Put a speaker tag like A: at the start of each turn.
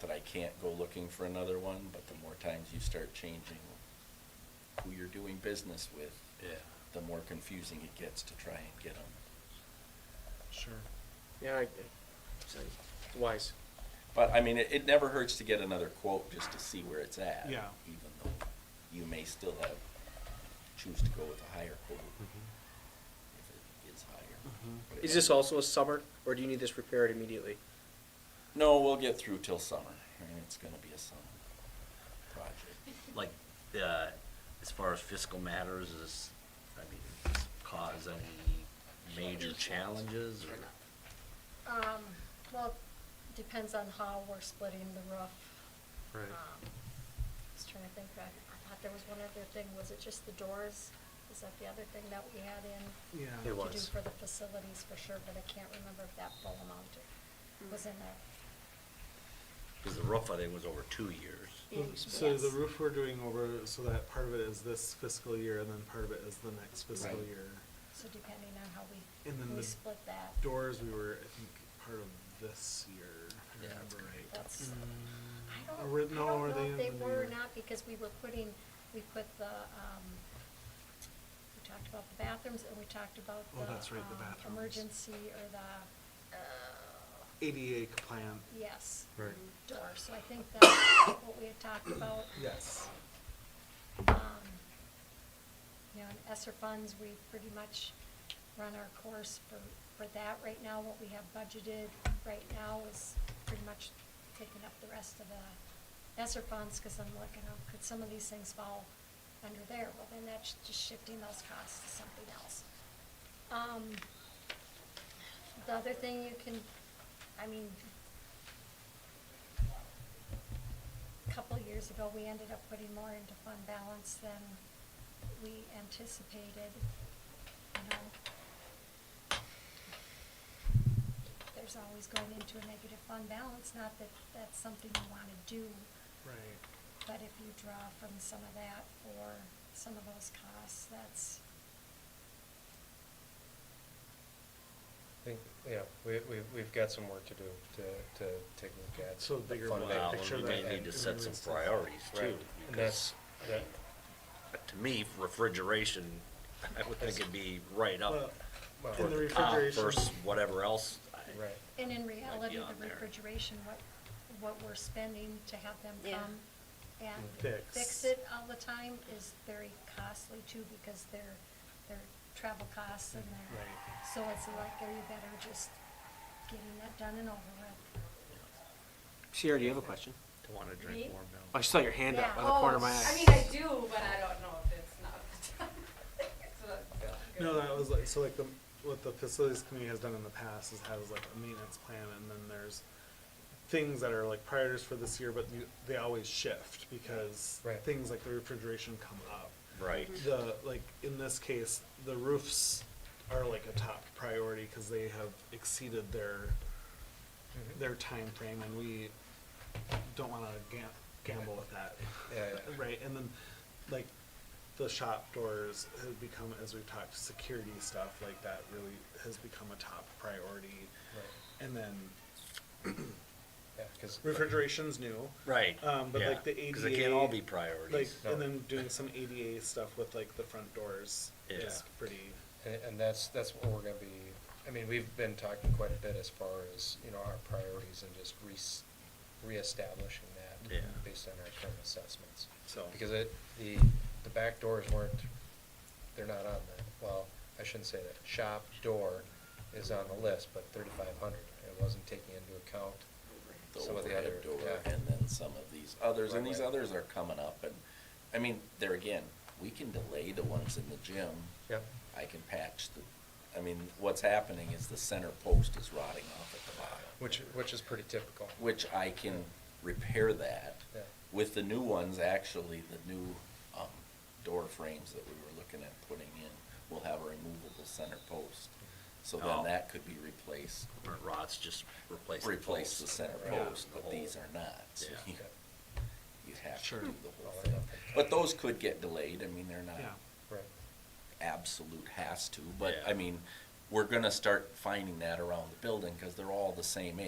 A: that I can't go looking for another one, but the more times you start changing who you're doing business with,
B: Yeah.
A: the more confusing it gets to try and get them.
C: Sure.
D: Yeah, I, I- wise.
A: But I mean, it, it never hurts to get another quote just to see where it's at.
C: Yeah.
A: Even though you may still have, choose to go with a higher quote if it is higher.
C: Mhm.
A: But it-
D: Is this also a summer, or do you need this repaired immediately?
A: No, we'll get through till summer. I mean, it's gonna be a summer project.
B: Like, uh, as far as fiscal matters, is, I mean, does this cause any major challenges or?
E: Um, well, depends on how we're splitting the roof.
C: Right.
E: Um, Just trying to think back, I thought there was one other thing, was it just the doors? Is that the other thing that we had in?
C: Yeah.
D: It
E: To do
D: was.
E: for the facilities for sure, but I can't remember if that full amount was in there.
B: Because the roof, I think, was over two years.
C: Well,
E: Yes.
C: So the roof we're doing over, so that part of it is this fiscal year and then part of it is the next fiscal
A: Right.
C: year.
E: So depending on how we,
C: And then
E: we
C: the
E: split that.
C: Doors, we were, I think, part of this year, if I
A: Yeah,
C: remember right.
E: That's- I
C: Mm,
E: don't, I
C: or were-
E: don't
C: no,
E: know
C: were
E: if
C: in
E: they
C: the uh, new
E: were or
C: year?
E: not, because we were putting, we put the, um, we talked about the bathrooms, and we talked about
C: Oh,
E: the,
C: that's right, the
E: um,
C: bathrooms.
E: emergency or the, uh,
C: ADA compliant.
E: yes,
C: Right.
E: door, so I think that's what we had talked about.
C: Yes.
E: Um, You know, in ESSER funds, we pretty much run our course for, for that right now. What we have budgeted right now is pretty much taking up the rest of the ESSER funds, because I'm looking, oh, could some of these things fall under there? Well, then that's just shifting those costs to something else. Um, The other thing you can, I mean, couple years ago, we ended up putting more into fund balance than we anticipated, you know. There's always going into a negative fund balance, not that that's something you wanna do,
C: Right.
E: but if you draw from some of that for some of those costs, that's,
F: I think, yeah, we, we, we've got some work to do to, to take a look at.
C: So bigger
F: fund
C: one.
B: Well,
F: balance.
C: picture
B: we
C: that
B: may
C: and-
B: need to
C: and
B: set some
C: everyone's-
B: priorities too.
F: Right, and
B: because
F: that's, that,
B: To me, refrigeration, I would think it'd be right
C: Well,
B: up
F: well,
C: in
B: toward
C: the
B: the top
C: refrigeration-
B: versus whatever else. I-
F: right,
E: and in reality,
B: on
E: the
B: there.
E: refrigeration, what, what we're spending to have them
G: Yeah.
E: come and
C: Fix.
E: fix it all the time is very costly too, because their, their travel costs and their,
C: Right.
E: so it's like, are you better just getting that done and over with?
D: Sierra, do you have a question? Oh,
B: To wanna
G: Me?
B: drink warm milk.
D: I saw your hand up
E: Yeah.
D: by the corner of my
E: Oh,
G: I
D: eye.
G: mean, I do, but I don't know if it's not. So that's good.
C: No, that was like, so like the, what the facilities committee has done in the past is has like a maintenance plan and then there's things that are like priorities for this year, but you, they always shift because
F: Right.
C: things like the refrigeration come up.
B: Right.
C: The, like, in this case, the roofs are like a top priority because they have exceeded their,
B: Mm-hmm.
F: Mhm.
C: their time frame, and we don't wanna gam- gamble with that.
F: Yeah, yeah.
C: Right, and then, like, the shop doors have become, as we've talked, security stuff like that really has become a top priority.
F: right,
C: And then
F: yeah, cause.
C: refrigeration's new.
B: Right.
C: Um, but
B: yeah,
C: like the ADA.
B: Cause it can't all be
C: Like,
B: priorities.
C: and then doing some ADA stuff with like the front doors
B: Yeah.
C: is pretty,
F: And, and that's, that's what we're gonna be, I mean, we've been talking quite a bit as far as, you know, our priorities and just re, reestablishing that.
B: Yeah.
F: Based on our current assessments.
C: so.
F: Because it, the, the back doors weren't, they're not on the, well, I shouldn't say that, shop door is on the list, but thirty-five hundred, it wasn't taking into account.
A: the
F: Some of the
A: overhead
F: other-
A: door,
F: yeah.
A: and then some of these others, and
F: Right,
A: these
F: right.
A: others are coming up, and, I mean, there again, we can delay the ones in the gym.
F: Yep.
A: I can patch the, I mean, what's happening is the center post is rotting off at the bottom.
F: Which, which is pretty typical.
A: Which I can repair that.
F: Yeah.
A: With the new ones, actually, the new, um, door frames that we were looking at putting in will have a removable center post. So
B: Oh.
A: then that could be replaced,
B: Or rods, just replace the
A: replace
B: post.
A: the center
B: Yeah.
A: post, but these are not. so
B: Yeah.
A: you- you have to
C: Sure.
A: do the whole thing. But those could get delayed, I mean, they're not
C: Yeah.
F: Right,
A: absolute has to, but,
B: Yeah.
A: I mean, we're gonna start finding that around the building, cause they're all the same